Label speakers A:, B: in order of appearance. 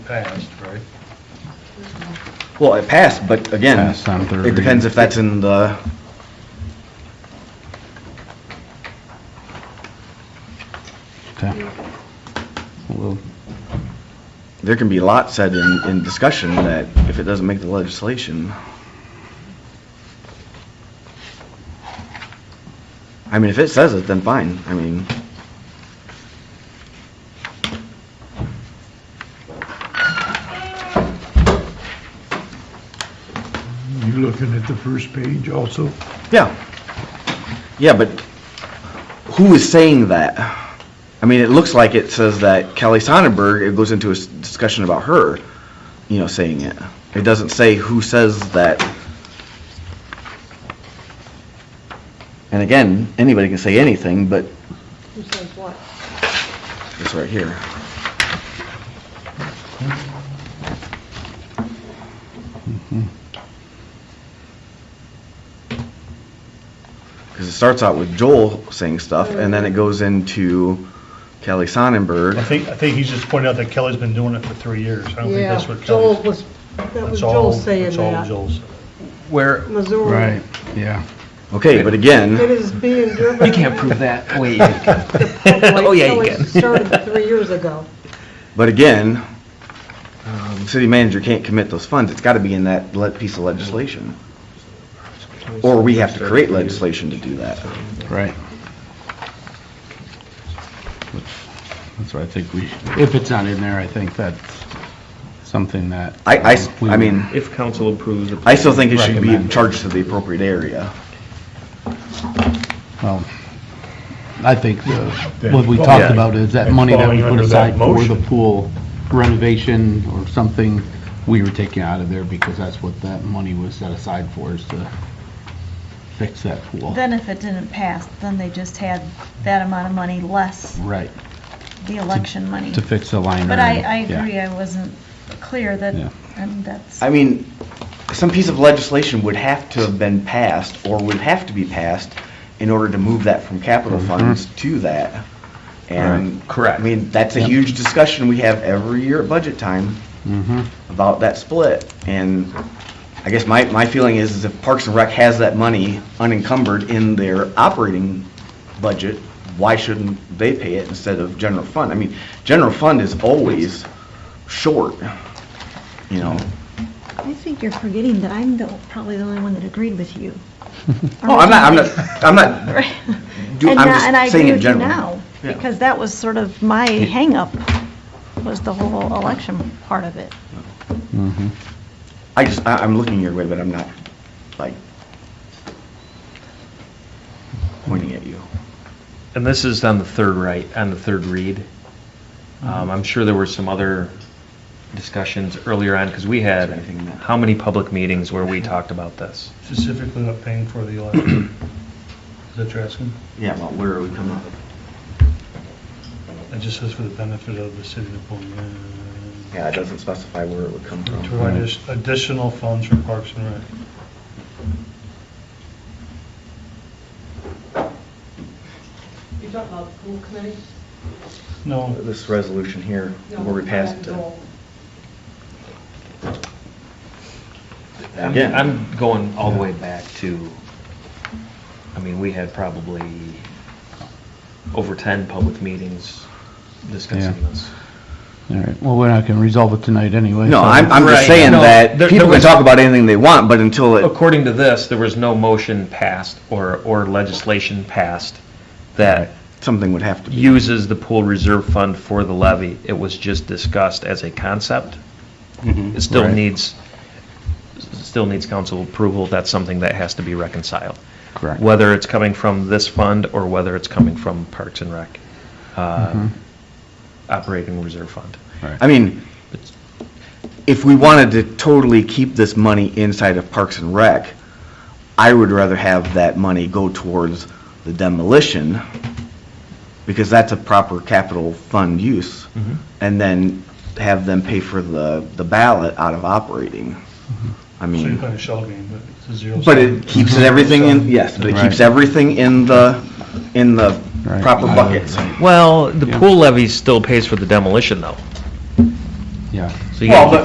A: passed, right?
B: Well, it passed, but again,
C: Passed on third
B: it depends
C: reading.
B: if that's in the,
C: Okay. We'll
B: there can be a lot said in, in discussion that if it doesn't make the legislation. I mean, if it says it, then fine. I mean,
D: You looking at the first page also?
B: yeah. Yeah, but who is saying that? I mean, it looks like it says that Kelly Sonnenberg, it goes into a s- discussion about her, you know, saying it. It doesn't say who says that. And again, anybody can say anything, but
E: Who says what?
B: It's right here. Because it starts out with Joel saying stuff, and then it goes into Kelly Sonnenberg.
A: I think, I think he's just pointing out that Kelly's been doing it for three years. I don't think
E: Yeah,
A: that's what Kelly's.
E: Joel was, that was
A: that's all-
E: Joel saying
A: That's all
E: that.
A: Joel's.
F: Where,
E: Missouri.
C: Right, yeah.
B: Okay, but
E: It
B: again,
E: is being driven.
F: you can't prove that. Wait, you can. Oh, yeah, you can.
E: Started three years ago.
B: but again, um, city manager can't commit those funds. It's got to be in that le- piece of legislation. Or we have to create legislation to do that.
C: Right. That's what I think we, if it's not in there, I think that's something that.
B: I, I s- I mean...
G: If council approves the
B: I still think it should be
C: Recommend.
B: charged to the appropriate area.
C: Well, I think the- what we talked about is that money that we
A: Falling
C: put
A: under that
C: aside for the
A: motion.
C: pool renovation or something, we were taking out of there because that's what that money was set aside for, is to fix that pool.
H: Then if it didn't pass, then they just had that amount of money less
C: Right,
H: the election money.
C: to fix the liner.
H: But I, I
C: yeah.
H: agree, I wasn't clear that,
C: Yeah.
H: and that's,
B: I mean, some piece of legislation would have to have been passed, or would have to be passed, in order to move that from capital funds to that. And, correct, I mean, that's a
C: Yep.
B: huge discussion we have every year at budget time
C: Mhm.
B: about that split. And I guess my, my feeling is, is if Parks and Rec has that money unencumbered in their operating budget, why shouldn't they pay it instead of general fund? I mean, general fund is always short, you know?
I: I think you're forgetting that I'm the, probably the only one that agreed with you.
B: Oh, I'm not, I'm not, I'm not,
I: Right.
B: do-
I: And
B: I'm
I: now-
B: just
I: and I
B: saying
I: agree
B: in
I: with you
B: general.
I: now,
B: Yeah.
I: Because that was sort of my hangup, was the whole election part of it.
C: Mm-hmm.
B: I just, I, I'm looking your way, but I'm not, like, pointing at you.
G: And this is on the third right, on the third read. Um, I'm sure there were some other discussions earlier on, because we had, how many public meetings where we talked about this?
A: Specifically not paying for the election. Is that what you're asking?
B: Yeah, well, where are we coming up?
A: It just says for the benefit of the city of Pullman.
B: Yeah, it doesn't specify where it would come
A: To
B: from.
A: provide addi- additional funds for Parks and Rec.
E: You're talking about the pool committee?
A: No,
B: This resolution here, where we passed it.
G: I'm-
B: Yeah.
G: I'm going all the way back to, I mean, we had probably over 10 public meetings discussing
C: Yeah.
G: this.
C: All right, well, we're not going to resolve it tonight anyway.
B: No,
C: so-
B: I'm, I'm just
G: Right.
B: saying
G: No,
B: that
G: there-
B: people
G: there
B: can
G: was-
B: talk about anything they want, but until it,
G: According to this, there was no motion passed or, or legislation passed that
B: something would have to be.
G: uses the pool reserve fund for the levy. It was just discussed as a concept. It still
C: Mm-hmm. Right.
G: needs, still needs council approval. That's something that has to be reconciled.
C: Correct.
G: Whether it's coming from this fund or whether it's coming from Parks and Rec,
C: Mm-hmm.
G: uh, operating reserve fund.
B: I mean, if we wanted to totally keep this money inside of Parks and Rec, I would rather have that money go towards the demolition, because that's a proper capital fund use, and then have them pay for the, the ballot out of operating. I
A: so you're
B: mean,
A: playing a shell game, but it's a zero.
B: but it keeps it everything in, yes, but it keeps everything in the, in the
C: Right.
B: proper buckets.
G: Well, the pool levy still pays for the demolition though.
J: yeah.
K: So you gotta
C: Well, but-